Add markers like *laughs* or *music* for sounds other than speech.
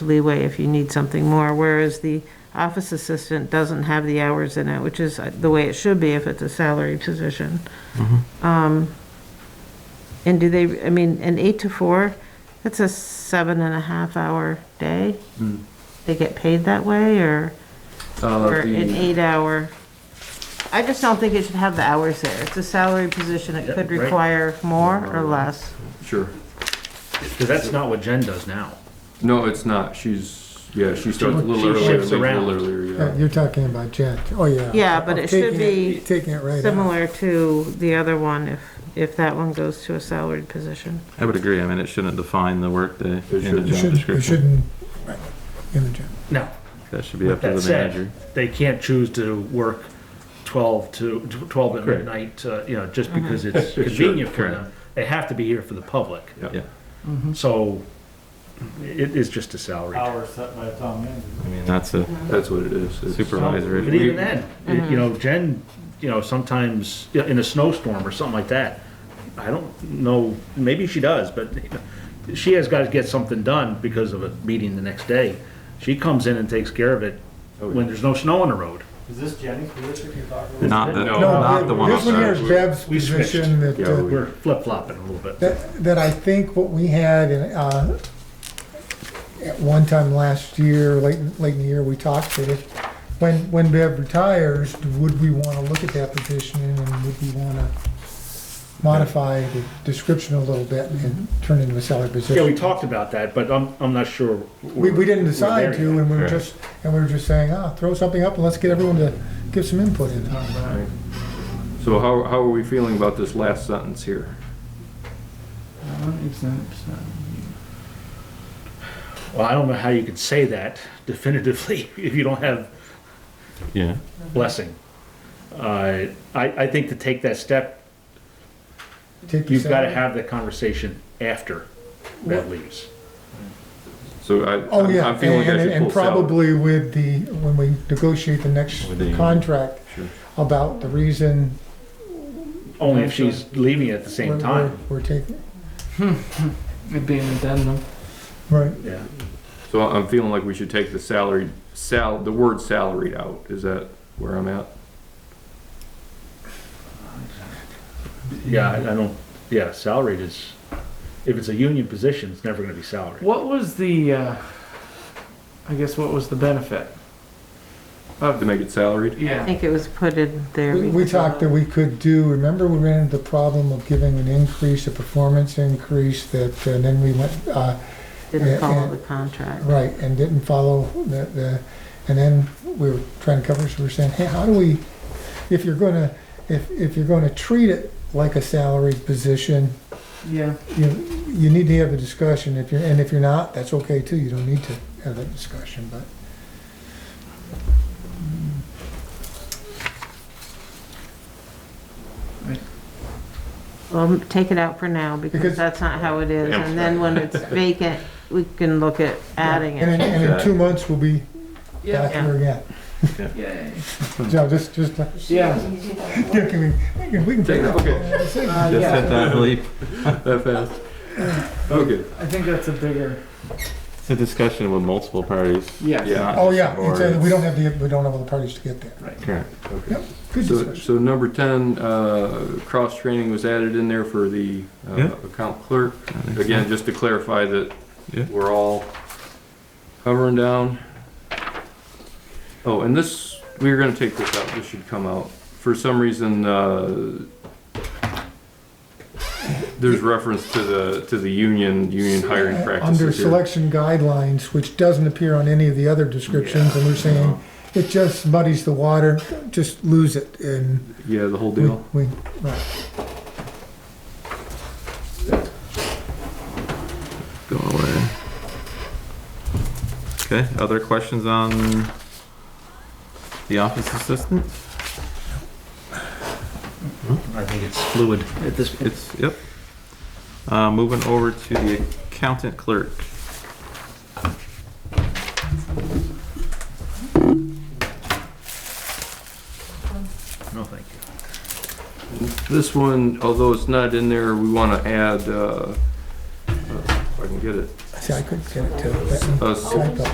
leeway if you need something more, whereas the office assistant doesn't have the hours in it, which is uh, the way it should be if it's a salary position. Um, And do they, I mean, an eight to four, that's a seven and a half hour day? They get paid that way, or, Uh, or an the- eight hour? I just don't think it should have the hours there. It's a salary position, it could right. require more or less. Sure. Because that's not what Jen does now. No, it's not. She's, yeah, she starts a little She earlier, leaves shifts a little around. earlier, Yeah, yeah. You're talking about Jen, oh, yeah. Yeah, but it should Taking it- be Taking it right out. Similar to the other one, if, if that one goes to a salaried position. I would agree. I mean, it shouldn't define the workday in the shouldn't. You job shouldn't, you description. shouldn't, right, in the job. No. That should be up to That the said, manager. They can't choose to work twelve to, twelve at Correct. midnight, uh, you know, just because it's convenient for them. They have to be here for the public, Yeah. so it is just a salary. Uh, hours set by the town manager. I mean, that's a That's what it is. It's- supervisory. But even then, it- you know, Jen, you know, sometimes, you know, in a snowstorm or something like that, I don't know, maybe she does, but you know, she has got to get something done because of a meeting the next day. She comes in and takes care of it when there's no snow on the road. Is this Jenny's position you're talking about? Not the, No, not the one This one here outside. is Deb's We switched. position that, Yeah, uh, we- We're flip-flopping a little bit. that, that I think what we had in, uh, at one time last year, late, late in the year, we talked that if, when, when Bev retires, would we want to look at that position and would we want to modify the description a little bit and turn it into a salary position? Yeah, we talked about that, but I'm, I'm not sure. We, we're- we didn't we're decide there to, yet. and we were Correct. just, and we were just saying, ah, throw something up and let's get everyone to give some input in Uh, it. So how, how are we feeling about this last sentence here? Well, I don't know how you could say that definitively *laughs* if you don't have Yeah. blessing. Uh, I, I think to take that step, Take the You've got to salary. have the conversation after that leaves. So I, Oh, I'm- yeah, I'm feeling and, I should and pull salary. probably with the, when we negotiate the next With the- contract, Sure. about the reason. Only if she's leaving at the we're- same we're- time. We're taking, It'd be an addendum. right, Yeah. So I'm feeling like we should take the salary, sal, the word salaried out. Is that where I'm at? Yeah, I I don't, yeah, salaried is, if it's a union position, it's never going to be salaried. What was the, uh, I guess what was the benefit? To Of, make it salaried? I *laughs* yeah, think it was put in there. we, we because- talked that we could do, remember we ran into the problem of giving an increase, a performance increase that, and then we went, uh, Didn't follow the contract. Right, and didn't follow the, the, and then we were trying to cover, so we were saying, hey, how do we, if you're gonna, if, if you're gonna treat it like a salaried position, yeah. you, you need to have a discussion, if you're, and if you're not, that's okay too, you don't need to have that discussion, but. Well, take it out for now because Because- that's not how it is. And then when it's vacant, we can look at adding And in, it. and in two months, we'll be back Yeah. here again. Yay. *laughs* So just, just, uh, Yeah. yeah, can we, we can- we can. Take that, okay, Uh, Just yeah. hit that leap. that fast. Okay, I think that's a bigger, It's a discussion with multiple parties. yes. Yeah. not Oh, just yeah, the board. it's, uh, we don't have the, we don't have all the parties to get there. Correct. okay. Yep, good So, discussion. so number ten, uh, cross-training was added in there for the, uh, Yeah. account clerk. I think so. Again, just to clarify that Yeah. we're all hovering down. Oh, and this, we were gonna take this out, this should come out. For some reason, uh, there's reference to the, to the union, union hiring Under practices here. selection guidelines, which doesn't appear on any of the other descriptions, and we're saying, it just muddies the water, just lose it, and Yeah, the whole we, deal. we, right. Go away. Okay, other questions on the office assistant? I think it's fluid at this point. It's, yep. Uh, moving over to the accountant clerk. No, thank you. This one, although it's not in there, we wanna add, uh, uh, if I can get it. I I couldn't get it to, that Uh, s- 呃 typo.